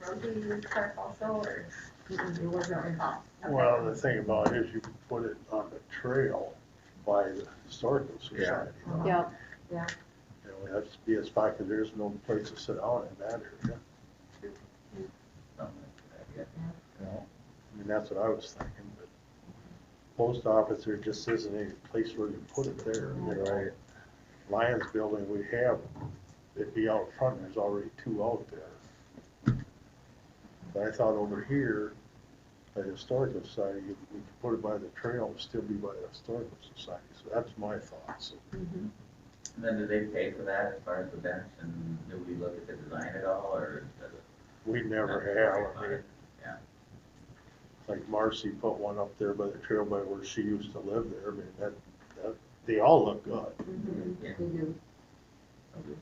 road do you use turf also, or? It wasn't involved. Okay. Well, the thing about it is you can put it on the trail by the historical Yeah. society. you know? Yep, You know, it has to be a spot, because there's no place to sit down in that area. You know, I mean, that's what I was thinking, but post office, there just isn't any place where you put it there. you know? Right. Lions building we have, it'd be out front, there's already two out there. But I thought over here, by the historical society, you could put it by the trail, and still be by the historical society, so that's my thoughts. Mm-hmm. And then do they pay for that as far as the bench and do we look at the design at all or does it? We never have, I mean, like Marcy put one up there by the trail by where she used to live there, I mean, that, that, they all look good. Yeah. they Mm-hmm. do.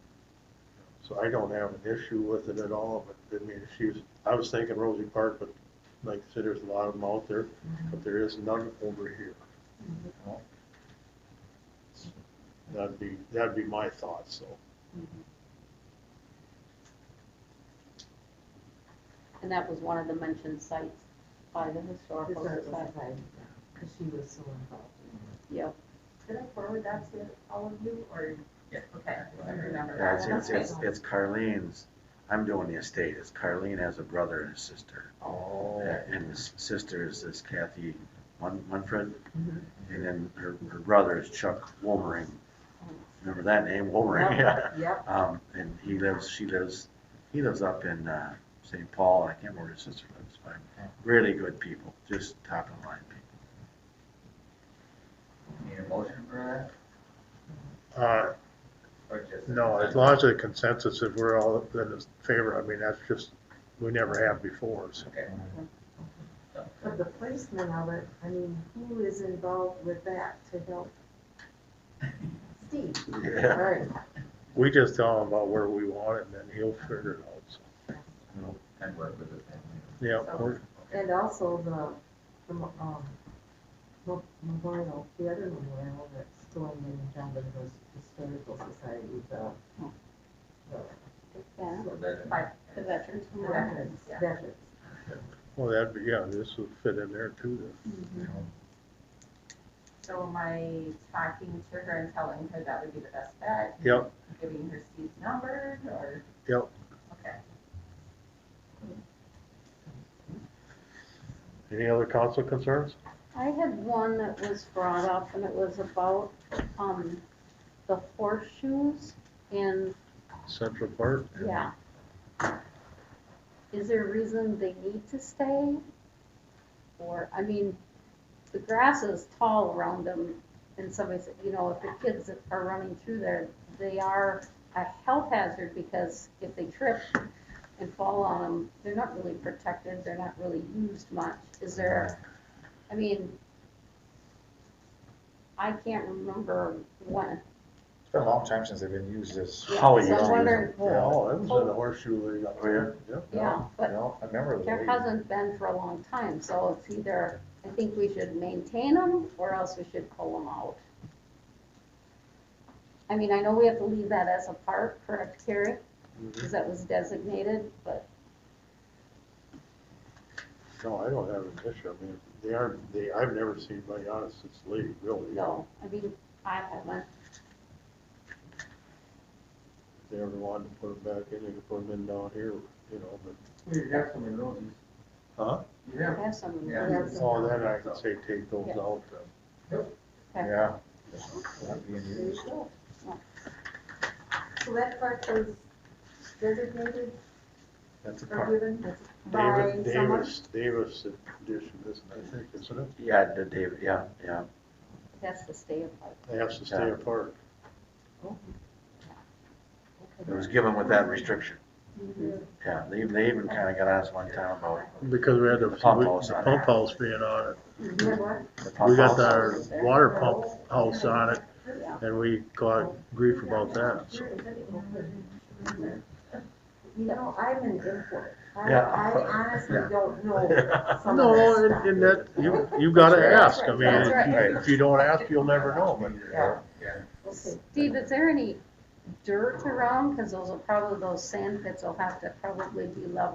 So I don't have an issue with it at all, but I mean, if she was, I was thinking Rosie Park, but like I said, there's a lot of them out there, but there is none over here. That'd be, that'd be my thoughts, so. And that was one of the mentioned sites by the historical society. Because she was so involved. Yep, Did I forward that to all of you, or? Yeah. Okay, I remember Yeah, it's, that. it's, Okay. it's, it's Carlene's, I'm doing the estate, it's Carlene has a brother and a sister. Oh. And his sister is this Kathy Mun- Munford, Mhm. Mm-hmm. and then her, her brother is Chuck Wolmering. Remember that name, Wolmering? Yeah. Yep, Um, and he lives, she lives, he lives up in, uh, St. Paul, I can't remember where his sister lives, but really good people, just top of the line people. Need a motion for Uh, that or just? no, as long as the consensus, if we're all in favor, I mean, that's just, we never have before, so. Okay. but the placement of it, I mean, who is involved with that to help? Steve, all Yeah. right. We just tell him about where we want it, and then he'll figure it out, so. And work with it. Yeah, So- we're- And also the, the, um, mo- memorial, the other memorial that's going in John Denver's Historical Society, the, the it's that, So that- Bye. the veterans memorial. veterans, Yeah. veterans. well, that'd be, yeah, this would fit in there too, then. So am I talking to her and telling her that would be the best bet, Yep, giving her Steve's number, or? Yep. Okay. any other council concerns? I had one that was brought up and it was about, um, the horseshoes in, Central Park? yeah. Is there a reason they need to stay? Or, I mean, the grass is tall around them and somebody said, you know, if the kids are running through there, they are a health hazard because if they trip and fall on them, they're not really protected, they're not really used much. Is there I mean, I can't remember when. It's been a long time since they've been used as, Yeah, How we so used I'm to use wondering, Oh, that was in the horseshoe league. Oh, yeah? Yep. yeah, you but know, I remember the there way. hasn't been for a long time, so it's either, I think we should maintain them or else we should pull them out. I mean, I know we have to leave that as a park, correct, Carrie? Because that was designated, but, No, I don't have an issue. I mean, they aren't, they, I've never seen, my honest, it's league, really. no, I mean, I haven't, If they ever wanted to put them back in, they could put them in down here, you know, but, You have some of those. Huh? You I have. have some of Yeah. them. That's- oh, then I could say take those out. Uh, then. Okay. Yeah. Not being There used. you go. So that part was designated That's a or park. given by David, someone? Davis, Davis edition, isn't it, I think, isn't it? Yeah, the David, yeah, yeah. That's the state of park. They have to stay Yeah. apart. It was given with that restriction. Mm-hmm. Yeah, they, they even kind of got us one time about Because we had the- The pump house on it. Pump house being on it. You know what? the pump We got house. our There. water pump house on it Yeah. and we got grief about that, so. You know, I'm an import. I, Yeah. I honestly Yeah. don't know some of No, that and, stuff. and that, you, you gotta That's ask, right. I mean, That's if right. you, if you don't ask, you'll never know, but Yeah. Okay. Steve, is there any dirt around? Because those will probably, those sand pits will have to probably be leveled